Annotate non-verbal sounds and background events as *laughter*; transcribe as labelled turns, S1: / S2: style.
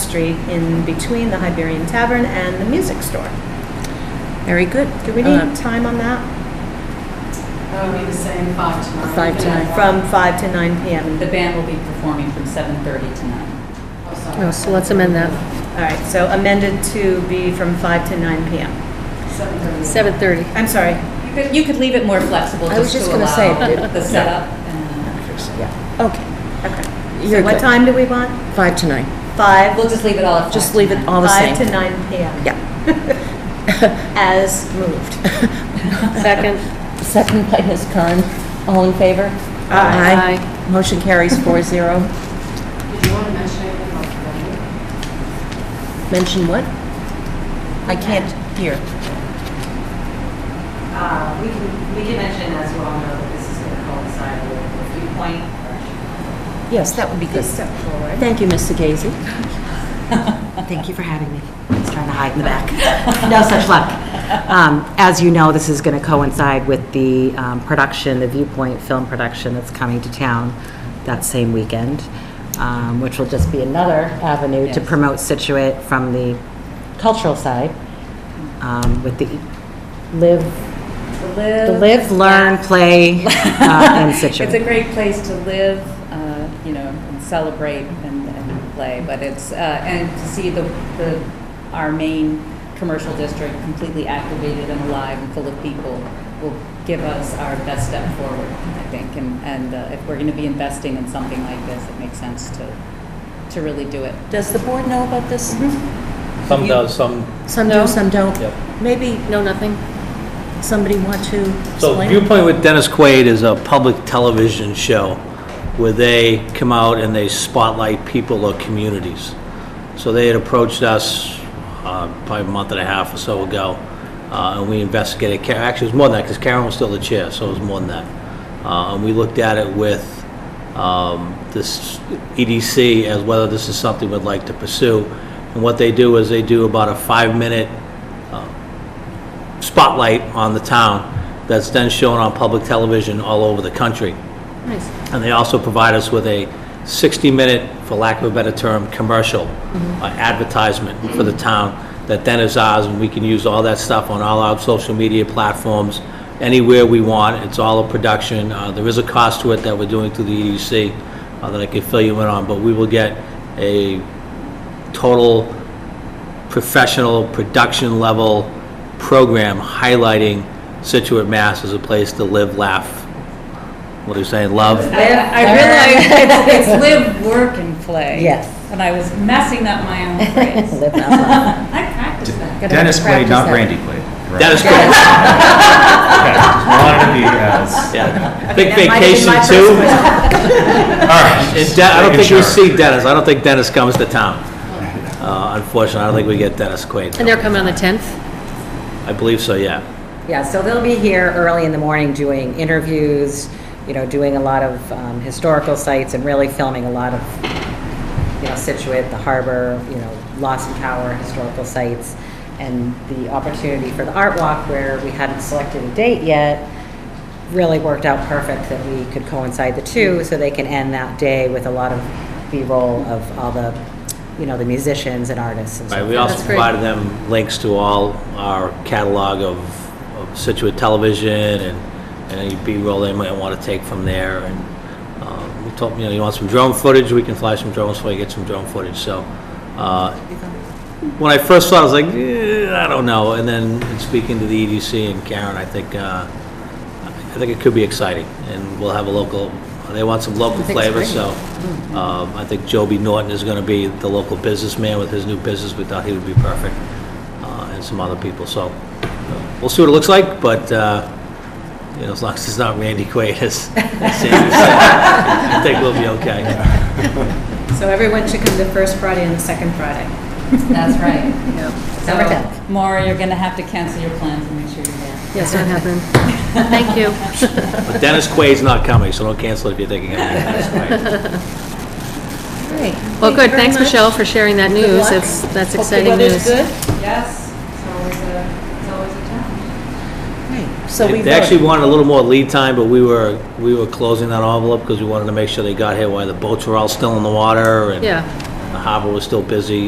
S1: Street in between the Hibernian Tavern and the music store.
S2: Very good.
S1: Do we
S2: Uh,
S1: need time on that?
S3: That would be the same five to nine.
S2: Five to nine.
S1: From 5 to 9 PM.
S4: The band will be performing from 7:30 to 9.
S3: Oh, sorry.
S2: Oh, so let's amend that.
S1: All right, so amended to be from 5 to 9 PM.
S2: Oh.
S3: Seven thirty.
S2: 7:30.
S1: I'm sorry.
S4: You could, you could leave it more flexible
S2: I was
S4: just
S2: just
S4: to
S2: gonna say,
S4: allow
S2: it-
S4: the
S2: yeah.
S4: setup. and, uh,
S2: Okay.
S1: Okay.
S2: You're
S1: So what
S2: good.
S1: time do we want?
S2: Five to nine.
S1: 5?
S4: uh, We'll just leave it all at
S2: Just
S4: five
S2: leave it
S4: tonight.
S2: all the same.
S1: 5 to 9 PM.
S2: Yeah.
S1: *laughs* As moved.
S2: Second.
S5: Second by Ms. Kern. All in favor?
S2: Aye.
S5: Motion carries four zero.
S3: Did you want to mention anything about the venue?
S5: Mention what? I can't hear.
S6: Uh, We can, we can mention as we all know that this is going to coincide with the viewpoint.
S5: Yes, that would be good.
S1: Step forward.
S5: Thank you, Mr. Gazy.
S6: Thank you for having me. I was trying to hide in
S4: *laughs*
S6: the back. No such luck. Um, As you know, this is going to coincide with the um, production, the Viewpoint film production that's coming to town that same weekend, um, which will just be another avenue to
S4: Yes.
S6: promote Situate from the cultural side um, with the live, the live, learn, play, uh, and Situate.
S4: *laughs* It's a great place to live, uh, you know, and celebrate and, and play, but it's, uh, and to see the, the, our main commercial district completely activated and alive and full of people will give us our best step forward, I think, and, and uh, if we're gonna be investing in something like this, it makes sense to, to really do it.
S5: Does the board know about this?
S7: Some
S5: You-
S7: does, some,
S5: Some
S2: Mm-hmm. No.
S5: do, some don't.
S7: Yep.
S5: Maybe
S2: No, nothing.
S5: somebody want to
S7: so
S5: explain?
S7: Viewpoint with Dennis Quaid is a public television show where they come out and they spotlight people or communities. So they had approached us uh, probably a month and a half or so ago, uh, and we investigated, Ca- actually it was more than that, because Karen was still the chair, so it was more than that. Uh, And we looked at it with um, this EDC as whether this is something we'd like to pursue. And what they do is they do about a five-minute spotlight on the town that's then shown on public television all over the country.
S2: *laughs* Nice.
S7: And they also provide us with a 60-minute, for lack of a better term, commercial uh, advertisement for the town that then is ours, and we can use all that stuff on all our social media platforms, anywhere we want. It's all a production. Uh, There is a cost to it that we're doing through the EDC uh, that I can fill you in on, but we will get a total professional, production-level program highlighting Situate, Mass. as a place to live, laugh, what are you saying, love?
S4: I, I realized it's, it's live, work, and play.
S5: Yes.
S4: And I was messing up my own
S5: *laughs*
S4: phrase.
S5: Live that life.
S4: I practiced that.
S2: Gotta
S8: Dennis Quaid,
S2: practice
S8: not
S2: that.
S8: Randy Quaid. *laughs* right?
S7: That is correct,
S8: Okay, just Wanted to be as,
S1: *laughs*
S7: yeah. Big
S1: that might have been
S7: vacation
S1: my
S7: too.
S8: all right.
S7: And De- I don't think we
S8: Making sure.
S7: see Dennis, I don't think Dennis comes to town. Uh, Unfortunately, I don't think we get Dennis Quaid.
S2: And they're coming on the 10th?
S7: I believe so, yeah.
S6: Yeah, so they'll be here early in the morning doing interviews, you know, doing a lot of um, historical sites and really filming a lot of, you know, Situate, the harbor, you know, Lost Power, historical sites, and the opportunity for the art walk where we hadn't selected a date yet really worked out perfect that we could coincide the two so they can end that day with a lot of B-roll of all the, you know, the musicians and artists and so
S7: Right, we also provided them links to all our catalog of of Situate Television and and any B-roll they might want to take from there. And um, we told, 'em, you know, you want some drone footage, we can fly some drones for you, get some drone footage, so. uh, When I first saw it, I was like, "Eh, I don't know, and then in speaking to the EDC and Karen, I think, uh, I think it could be exciting, and we'll have a local, they want some local flavor, so um, I think Joby Norton is going to be the local businessman with his new business. We thought he would be perfect, uh, and some other people, so uh, we'll see what it looks like, but, uh, you know, as long as it's not Randy Quaid, *laughs* as as Sandy said, I think we'll be okay.
S6: *laughs*
S1: So everyone should come the first Friday and the second Friday.
S4: That's right.
S6: December 10th.
S4: So, Maura, you're going to have to cancel your plans and make sure you're there.
S2: Yes, not *laughs* happening. Thank you.
S7: But Dennis Quaid's not coming, so don't cancel if you're thinking of meeting Dennis Quaid.
S2: Well, good, thanks, Michelle, for sharing that news. It's, that's exciting news.
S3: Yes, it's always a, it's always a challenge.
S5: So we
S7: They actually wanted a little more lead time, but we were, we were closing that envelope because we wanted to make sure they got here while the boats were all still in the water and
S2: Yeah.
S7: the harbor was still busy